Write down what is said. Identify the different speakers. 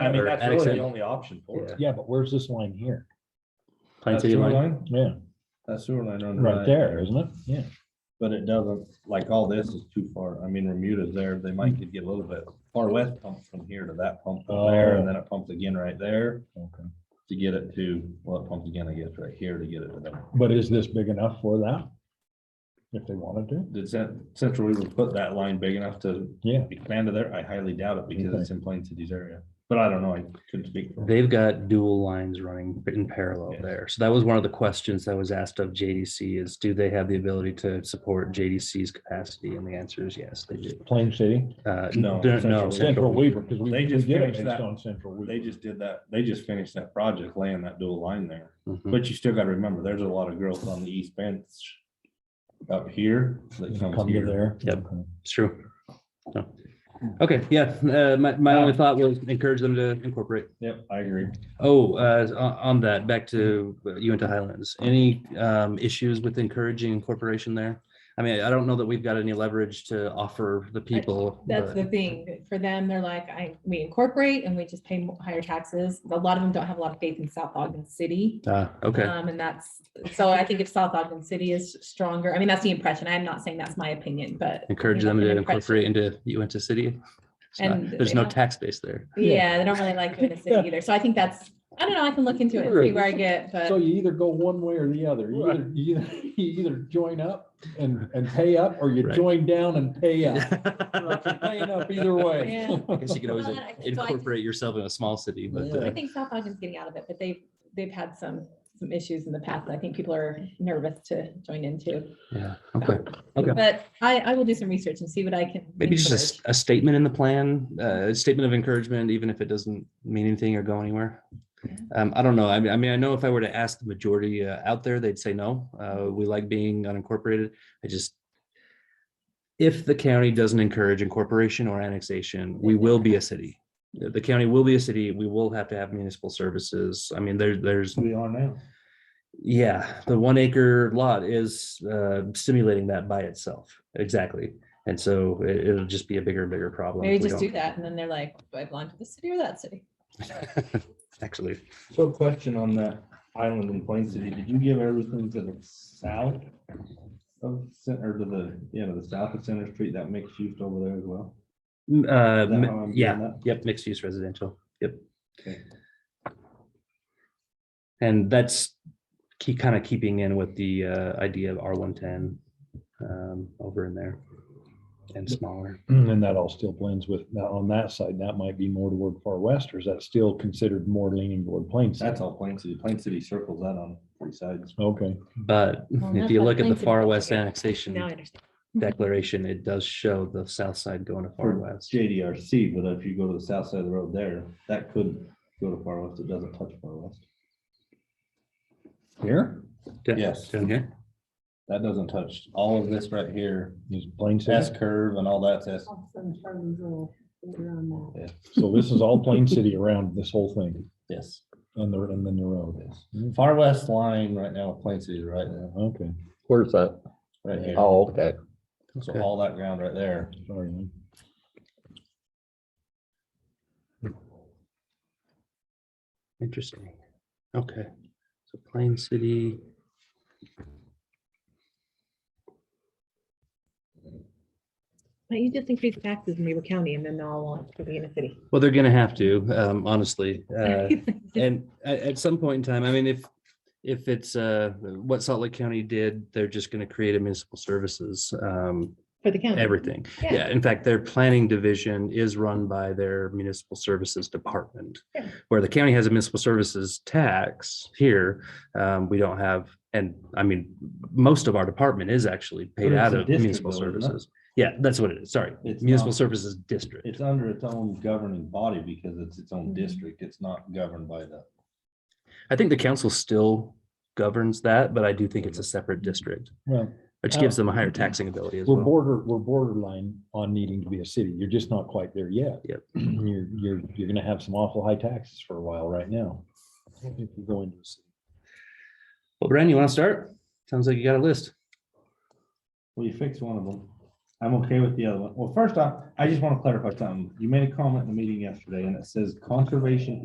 Speaker 1: I mean, that's
Speaker 2: That
Speaker 1: really
Speaker 2: extent-
Speaker 1: the only option for it.
Speaker 3: Yeah, but where's this line here?
Speaker 2: Pine
Speaker 1: That
Speaker 2: City
Speaker 1: sewer
Speaker 2: line,
Speaker 3: Yeah,
Speaker 1: That sewer line on. the
Speaker 3: right there, isn't it? Yeah.
Speaker 1: But it doesn't, like all this is too far. I mean, Remuda's there, they might could get a little bit far west pump from here to that pump up there, and then it pumps again right there
Speaker 3: Okay.
Speaker 1: to get it to, well, it pumps again, I guess, right here to get it to them.
Speaker 3: But is this big enough for that? If they wanted to?
Speaker 1: Did Cen- Central Weaver put that line big enough to
Speaker 3: Yeah.
Speaker 1: expand to there? I highly doubt it because it's in Plain City's area. But I don't know, I couldn't speak for.
Speaker 2: they've got dual lines running in parallel
Speaker 1: Yeah.
Speaker 2: there. So that was one of the questions that was asked of JDC is do they have the ability to support JDC's capacity? And the answer is yes, they do.
Speaker 3: Plain City,
Speaker 2: Uh,
Speaker 1: No,
Speaker 2: they're-
Speaker 1: Central
Speaker 2: No,
Speaker 1: Weaver.
Speaker 3: Central Weaver, because we.
Speaker 1: They just
Speaker 3: we did it
Speaker 1: finished
Speaker 3: based
Speaker 1: that.
Speaker 3: On Central Weaver.
Speaker 1: They just did that, they just finished that project laying that dual line there.
Speaker 3: Hmm.
Speaker 2: Mhm.
Speaker 1: But you still gotta remember, there's a lot of growth on the east bench up here that comes
Speaker 3: Come to
Speaker 1: here.
Speaker 3: there.
Speaker 2: Yep.
Speaker 3: Okay.
Speaker 2: It's true. No. Okay, yeah, uh, my, my only thought was encourage them to incorporate.
Speaker 1: Yep, I agree.
Speaker 2: Oh, uh, on, on that, back to uh, you into Highlands, any, um, issues with encouraging incorporation there? I mean, I don't know that we've got any leverage to offer the people.
Speaker 4: That's
Speaker 2: but-
Speaker 4: the thing. For them, they're like, I, we incorporate and we just pay mo- higher taxes. A lot of them don't have a lot of faith in South Ogden City.
Speaker 2: Ah, okay,
Speaker 4: Um, and that's, so I think if South Ogden City is stronger, I mean, that's the impression. I'm not saying that's my opinion, but.
Speaker 2: encourage
Speaker 4: you know,
Speaker 2: them to
Speaker 4: an impression.
Speaker 2: incorporate into Uinta City. It's not-
Speaker 4: And
Speaker 2: There's
Speaker 4: they
Speaker 2: no
Speaker 4: don't-
Speaker 2: tax base there.
Speaker 4: Yeah, they don't really like doing the city either. So I think that's, I don't know, I can look into it and see where I get,
Speaker 3: So
Speaker 4: but
Speaker 3: you either go one way or the other. You either, you either, you either join up and, and pay up, or you
Speaker 2: Right.
Speaker 3: join down and pay up. You're Paying
Speaker 2: I
Speaker 3: up either way.
Speaker 4: Yeah.
Speaker 2: guess you could always
Speaker 4: Well, I- so I think-
Speaker 2: incorporate yourself in a small city, but.
Speaker 4: I
Speaker 2: uh,
Speaker 4: think South Ogden's getting out of it, but they've, they've had some, some issues in the past. that I think people are nervous to join into.
Speaker 2: Yeah, okay. Okay.
Speaker 4: But I, I will do some research and see what I can.
Speaker 2: Maybe just a s-
Speaker 4: encourage.
Speaker 2: a, statement in the plan, uh, a statement of encouragement, even if it doesn't mean anything or go anywhere.
Speaker 4: Yeah.
Speaker 2: Um, I don't know. I mean, I mean, I know if I were to ask the majority uh, out there, they'd say no. Uh, we like being unincorporated. I just, if the county doesn't encourage incorporation or annexation, we will be a city. The the county will be a city. We will have to have municipal services. I mean, there, there's
Speaker 1: We are now.
Speaker 2: yeah, the one acre lot is uh, stimulating that by itself. Exactly. And so it, will just be a bigger, and bigger problem.
Speaker 4: Maybe
Speaker 2: if we
Speaker 4: just do
Speaker 2: don't-
Speaker 4: that, and then they're like, do I belong to this city or that city?
Speaker 2: Actually,
Speaker 1: So question on that island in Plain City, did you give everything to the south? Of center to the, you know, the south of Center Street, that mixed use over there as well?
Speaker 2: M- uh,
Speaker 1: that
Speaker 2: mi-
Speaker 1: how I'm doing
Speaker 2: yeah,
Speaker 1: that?
Speaker 2: yep, mixed use residential, yep.
Speaker 1: Okay.
Speaker 2: And that's key, kind of keeping in with the uh, idea of R one ten um, over in there and smaller.
Speaker 3: And that all still blends with, now on that side, that might be more toward far west, or is that still considered more leaning toward Plain City?
Speaker 1: That's all Plain City. Plain City circles that on three sides.
Speaker 3: Okay,
Speaker 2: But
Speaker 4: Well,
Speaker 2: if
Speaker 4: that's
Speaker 2: you
Speaker 4: why
Speaker 2: look at the
Speaker 4: Plains is
Speaker 2: far
Speaker 4: not
Speaker 2: west
Speaker 4: big.
Speaker 2: annexation.
Speaker 4: Now I understand.
Speaker 1: Mm-hmm.
Speaker 2: declaration, it does show the south side going to far
Speaker 1: Or
Speaker 2: west.
Speaker 1: JDRC, but if you go to the south side of the road there, that could go to far west. It doesn't touch far west.
Speaker 3: here
Speaker 2: Yeah.
Speaker 1: Yes,
Speaker 2: Down here?
Speaker 1: that doesn't touch all of this right here.
Speaker 3: is Plain
Speaker 1: S
Speaker 3: City.
Speaker 1: curve and all that's S.
Speaker 3: So this is all Plain City around this whole thing
Speaker 1: Yes.
Speaker 3: and the, and then the road.
Speaker 1: yes. Far west line right now, Plain City right now,
Speaker 3: Okay,
Speaker 5: Where's that?
Speaker 1: right here.
Speaker 5: Oh, okay.
Speaker 1: So
Speaker 2: Okay.
Speaker 1: all that ground right there.
Speaker 3: sorry. man.
Speaker 2: Interesting. Okay. So Plain City.
Speaker 4: You just increase taxes in Weaver County, and then they'll all want to be in a city.
Speaker 2: Well, they're gonna have to, um, honestly. uh, And at, at some point in time, I mean, if, if it's, uh, what Salt Lake County did, they're just gonna create a municipal services, um,
Speaker 4: For the
Speaker 1: Hmm.
Speaker 4: county.
Speaker 2: everything.
Speaker 4: Yeah.
Speaker 2: Yeah, in fact, their planning division is run by their municipal services department.
Speaker 4: Yeah.
Speaker 2: Where the county has a municipal services tax here, um, we don't have, and I mean, most of our department is actually paid
Speaker 1: But it's
Speaker 2: out
Speaker 1: a
Speaker 2: of
Speaker 1: district
Speaker 2: municipal
Speaker 1: though, isn't it?
Speaker 2: services. Yeah, that's what it is, sorry,
Speaker 1: It's
Speaker 2: municipal
Speaker 1: not-
Speaker 2: services district.
Speaker 1: It's under its own governing body because it's its own
Speaker 4: Mhm.
Speaker 1: district. It's not governed by the.
Speaker 2: I think the council still governs that, but I do think it's a separate district,
Speaker 3: Well,
Speaker 2: which gives
Speaker 1: Oh.
Speaker 2: them a higher taxing ability as
Speaker 3: We're
Speaker 2: well.
Speaker 3: border, we're borderline on needing to be a city. You're just not quite there yet.
Speaker 2: Yep.
Speaker 3: You're, you're, you're gonna have some awful high taxes for a while right now. If you go into a city.
Speaker 2: Well, Brandon, you want to start? Sounds like you got a list.
Speaker 1: Well, you fix one of them. I'm okay with the other one. Well, first off, I just want to clarify something. You made a comment in the meeting yesterday and it says conservation